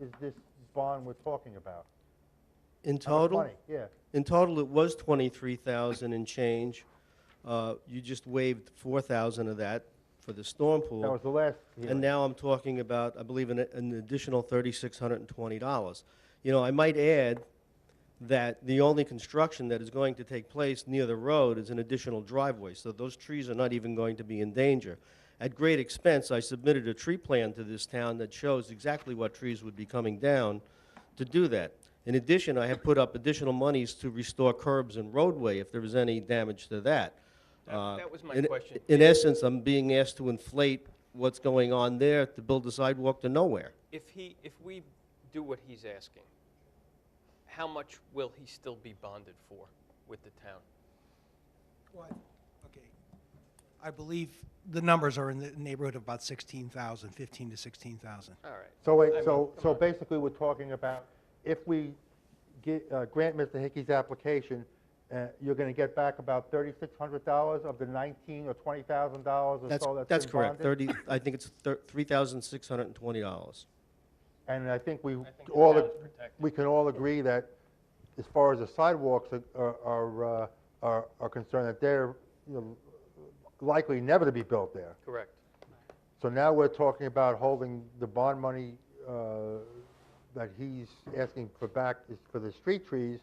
is this bond we're talking about? How In much total? money? Yeah, In total, it was 23,000 and change. Uh, You just waived 4,000 of that for the storm that was pool. the last And hearing. now I'm talking about, I believe, an an additional $3,620. You know, I might add that the only construction that is going to take place near the road is an additional driveway, so those trees are not even going to be in danger. At great expense, I submitted a tree plan to this town that shows exactly what trees would be coming down to do that. In addition, I have put up additional monies to restore curbs and roadway if there is any damage to that. That- Uh, that was my in- question. In essence, I'm being asked to inflate what's going on there to build a sidewalk to nowhere. If he, if we do what he's asking, how much will he still be bonded for with the town? Well, I- okay. I believe the numbers are in the neighborhood of about 16,000, 15 to 16,000. All right. So wait, I mean, so, come so on. basically, we're talking about if we get, uh, grant Mr. Hickey's application, uh, you're going to get back about thirty-six hundred dollars of the nineteen or twenty thousand dollars or That's, so that's that's been correct, bonded? 30, I think it's thir- $3,620. And I think we think the all, town ag- is protected. we can all agree that as far as the sidewalks are- are, are, uh, are- are concerned, that they're, you know, likely never to be built there. Correct. So now we're talking about holding the bond money uh, that he's asking for back is for the street trees,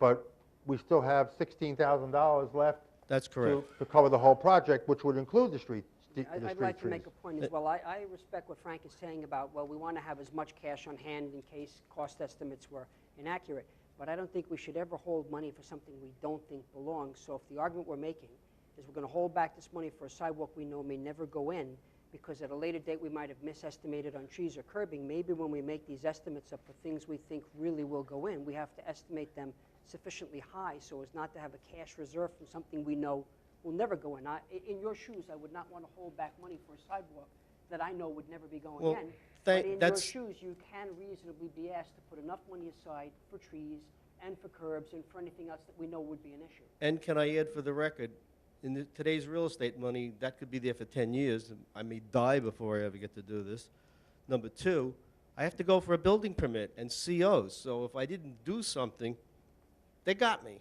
but we still have $16,000 left. That's to- correct. To cover the whole project, which would include the street, the the street I- trees. I'd like to make a point as well. I, I respect what Frank is saying about, well, we want to have as much cash on hand in case cost estimates were inaccurate, but I don't think we should ever hold money for something we don't think belongs. So if the argument we're making is we're going to hold back this money for a sidewalk we know may never go in, because at a later date, we might have misestimated on trees or curbing, maybe when we make these estimates up for things we think really will go in, we have to estimate them sufficiently high so as not to have a cash reserve from something we know will never go in. I, i- in your shoes, I would not want to hold back money for a sidewalk that I know would never be going Well, in. thank- but in that's- your shoes, you can reasonably be asked to put enough money aside for trees and for curbs and for anything else that we know would be an issue. And can I add for the record, in the- today's real estate money, that could be there for 10 years. I may die before I ever get to do this. Number two, I have to go for a building permit and COs. So if I didn't do something, they got me.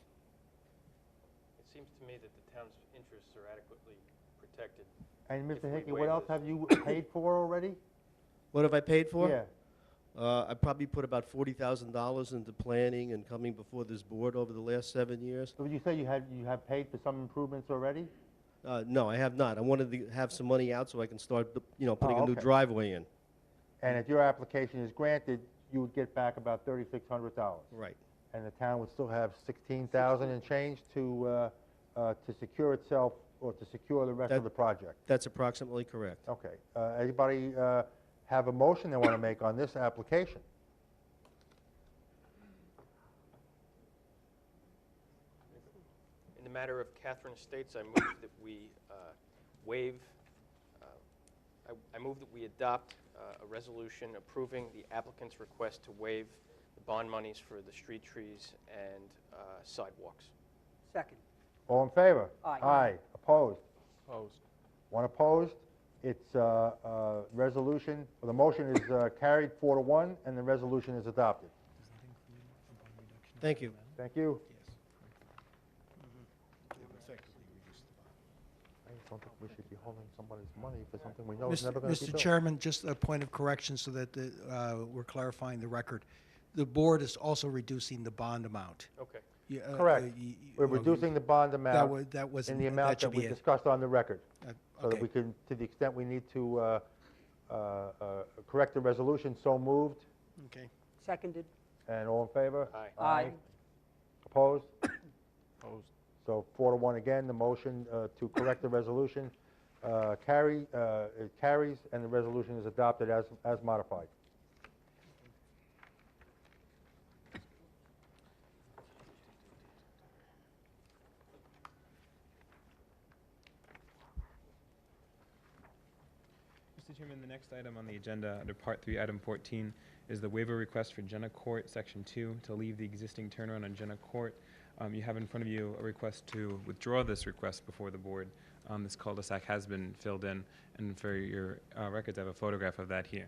It seems to me that the town's interests are adequately protected. And if we Mr. Hickey, waive what else this. have you paid for already? What have I paid for? Yeah. Uh, I probably put about $40,000 into planning and coming before this board over the last seven years. So would you say you had, you have paid for some improvements already? Uh, No, I have not. I wanted to have some money out so I can start, you know, putting Oh, a new okay. driveway in. And if your application is granted, you would get back about thirty-six hundred dollars. Right. And the town would still have sixteen thousand and change to, uh, uh, to secure itself, or to secure the rest of That- the project. That's approximately correct. Okay. Uh, Anybody uh, have a motion they want to make on this application? In the matter of Catherine Estates, I move that we uh, waive, uh, I- I move that we adopt uh, a resolution approving the applicant's request to waive the bond monies for the street trees and uh, sidewalks. Second, All in favor? Aye. Aye. Opposed? Opposed. One opposed? It's uh, uh, resolution, or the motion is uh, carried four to one, and the resolution is adopted. Thank you. Thank you. I just don't think we should be holding somebody's money for something we know is never Mr. going to be Mr. built. Chairman, just a point of correction so that the, uh, we're clarifying the record. The board is also reducing the bond amount. Okay. You, uh, Correct. uh, you- you- We're well, you- reducing the bond wa- amount that in wasn't- the that amount that should we be it. discussed on the record. Uh, So that okay. we can, to the extent we need to uh, uh, uh, correct the resolution, so moved. Okay. seconded, And all in favor? Aye. Aye. Opposed? Opposed. So four to one again, the motion uh, to correct the resolution uh, carry, uh, it carries, and the resolution is adopted as, as modified. Mr. Chairman, the next item on the agenda, under Part 3, Item 14, is the waiver request for Jenna Court, Section 2, to leave the existing turnaround on Jenna Court. Um, You have in front of you a request to withdraw this request before the board. Um, This cul-de-sac has been filled in, and for your uh, records, I have a photograph of that here.